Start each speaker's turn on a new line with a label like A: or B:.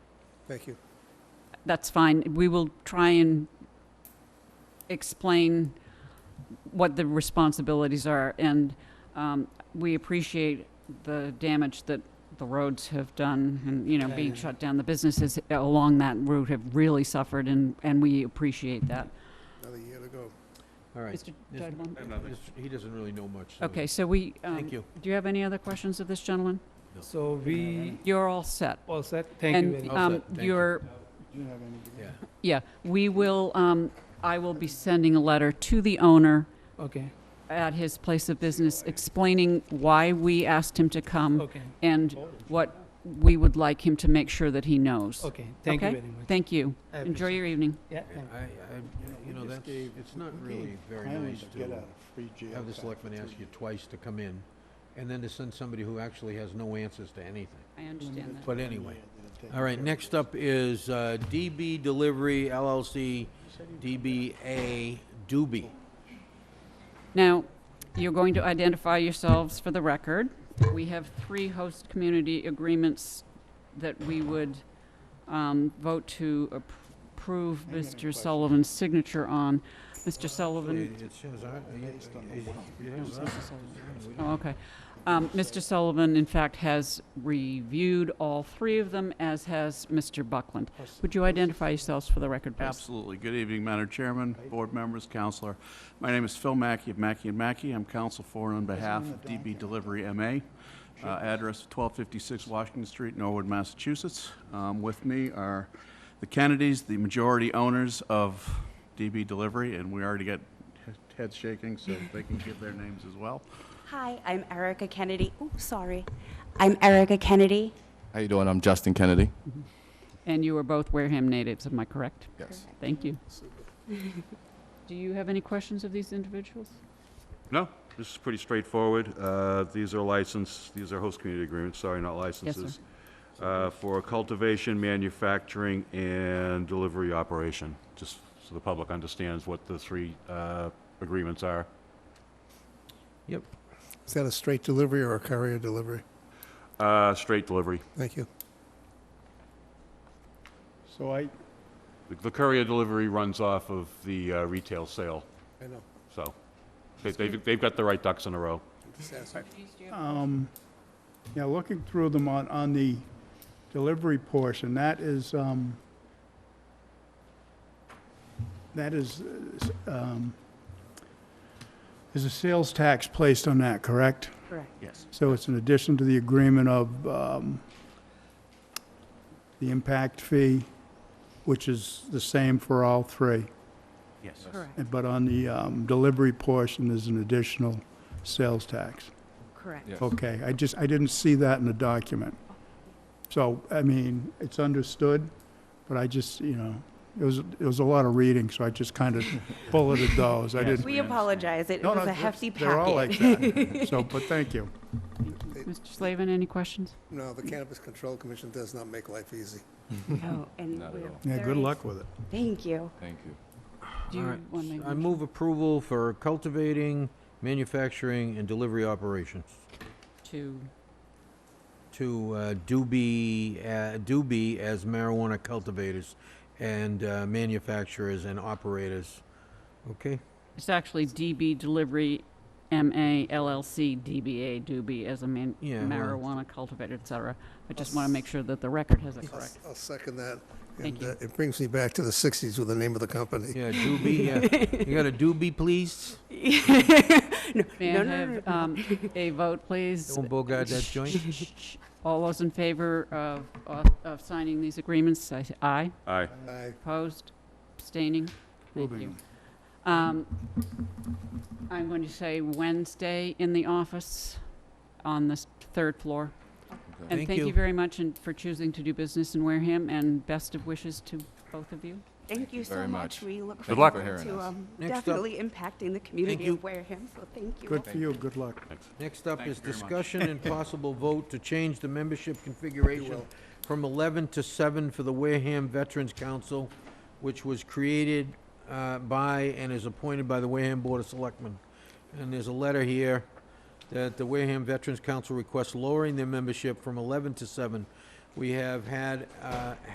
A: Thank you.
B: That's fine. We will try and explain what the responsibilities are, and um, we appreciate the damage that the roads have done, and, you know,
A: Yeah,
B: being
A: yeah.
B: shut down. The businesses along that route have really suffered, and, and we appreciate that.
A: Another year to go.
C: All right.
B: Mr.
C: Yes,
B: Dudley?
C: Mr. He doesn't really know much. so
B: Okay, so we, um,
C: Thank you.
B: do you have any other questions of this gentleman?
D: So we
B: You're all set.
D: all set? Thank you very
B: And
D: much.
C: All
B: um,
C: set, thank you.
B: you're,
A: Do you have any?
C: Yeah.
B: yeah, we will, um, I will be sending a letter to the owner
D: Okay,
B: at his place of business explaining why we asked him to come
D: okay,
B: and what we would like him to make sure that he knows.
D: okay. Thank you
B: Okay?
D: very much.
B: Thank you.
D: I
B: Enjoy
D: appreciate
B: your evening.
D: it. Yeah, thank
C: I, I, you know, that's, it's not really very nice to have the selectman ask you twice to come in and then to send somebody who actually has no answers to anything.
B: I understand that.
C: But anyway, all right, next up is uh, DB Delivery LLC, DBA Doobie.
B: Now, you're going to identify yourselves for the record. We have three host community agreements that we would um, vote to approve
A: I got a question.
B: Mr. Sullivan's signature on. Mr. Sullivan,
C: It shows our- it-
A: Based on the
C: it-
A: one.
C: it is our-
B: Oh, okay. Um, Mr. Sullivan, in fact, has reviewed all three of them, as has Mr. Buckland. Would you identify yourselves for the record, please?
E: Absolutely. Good evening, Madam Chairman, board members, counselor. My name is Phil Mackey of Mackey and Mackey. I'm counsel for and on behalf of DB Delivery MA. Uh, Address 1256 Washington Street, Norwood, Massachusetts. Um, With me are the Kennedys, the majority owners of DB Delivery, and we already got he- heads shaking, so they can give their names as well.
F: Hi, I'm Erica Kennedy. Oh, sorry. I'm Erica Kennedy.
G: How you doing? I'm Justin Kennedy.
B: And you are both Wareham natives, am I correct?
G: Yes.
B: Thank you. Do you have any questions of these individuals?
H: No, this is pretty straightforward. Uh, These are licensed, these are host community agreements, sorry, not licenses. uh, For cultivation, manufacturing, and delivery operation, just so the public understands what the three uh, agreements are.
A: Is that a straight delivery or a courier delivery?
H: Uh, Straight delivery.
A: Thank you.
I: So I,
H: The- The courier delivery runs off of the uh, retail sale,
A: I know.
H: so they- they've they've got the right ducks in a row.
A: Just ask.
I: um, yeah, looking through them on, on the delivery portion, that is, um, that is, uh, s- um, is a sales tax placed on that, correct?
F: Correct.
E: Yes.
I: So it's in addition to the agreement of, um, the impact fee, which is the same for all three.
E: Yes.
F: Correct.
I: But on the, um, delivery portion, there's an additional sales tax.
F: Correct.
G: Yes.
I: Okay, I just, I didn't see that in the document. So, I mean, it's understood, but I just, you know, it was, it was a lot of reading, so I just kind of bulleted those. I
E: Yes.
I: didn't.
F: We apologize. It
I: No, no,
F: was a
I: that's-
F: hefty packet.
I: They're all like that. So, but thank you.
B: Mr. Slavin, any questions?
A: No, the Cannabis Control Commission does not make life easy.
F: No, Oh, and
G: Not at
F: we're
G: all.
I: Yeah,
F: very-
I: good luck with it.
F: Thank you.
G: Thank you.
B: Do you
C: All right,
B: want to make a
C: I
B: motion?
C: move approval for cultivating, manufacturing, and delivery operations
B: To,
C: to uh, Doobie, uh, Doobie as marijuana cultivators and uh, manufacturers and operators. Okay?
B: it's actually DB Delivery MA LLC DBA Doobie as a man-
C: Yeah, well-
B: marijuana cultivator, et cetera. I just want to make sure that the record has it
A: I'll
B: correct.
A: s- I'll second that.
B: Thank
A: And
B: you.
A: uh, it brings me back to the 60s with the name of the company.
C: Yeah, Doobie, yeah. You got a Doobie, please?
B: May
F: No,
B: I
F: no, no,
B: have
F: no.
B: um, a vote, please?
C: Don't bogart Oh, that joint.
B: All those in favor of- of, of signing these agreements, say aye.
H: Aye.
A: Aye.
B: Opposed? Abstaining? Thank
I: Moving
B: you.
I: on.
B: Um, I'm going to say Wednesday in the office on the s- third floor. And
C: Thank
B: thank you
C: you.
B: very much and for choosing to do business in Wareham, and best of wishes to both of you.
F: Thank you so
G: very
F: much.
G: much.
F: We look
H: Good
F: forward
H: luck.
G: Thank you for
F: to
G: hearing us.
F: um,
C: Next up-
F: definitely impacting the community
C: you.
F: of Wareham, so thank you.
I: Good for you, good luck.
C: Next up
E: Thank
C: is
E: you very much.
C: discussion and possible vote to change the membership configuration from 11 to 7 for the Wareham Veterans Council, which was created uh, by and is appointed by the Wareham Board of Selectmen. And there's a letter here that the Wareham Veterans Council requests lowering their membership from 11 to 7. We have had, uh,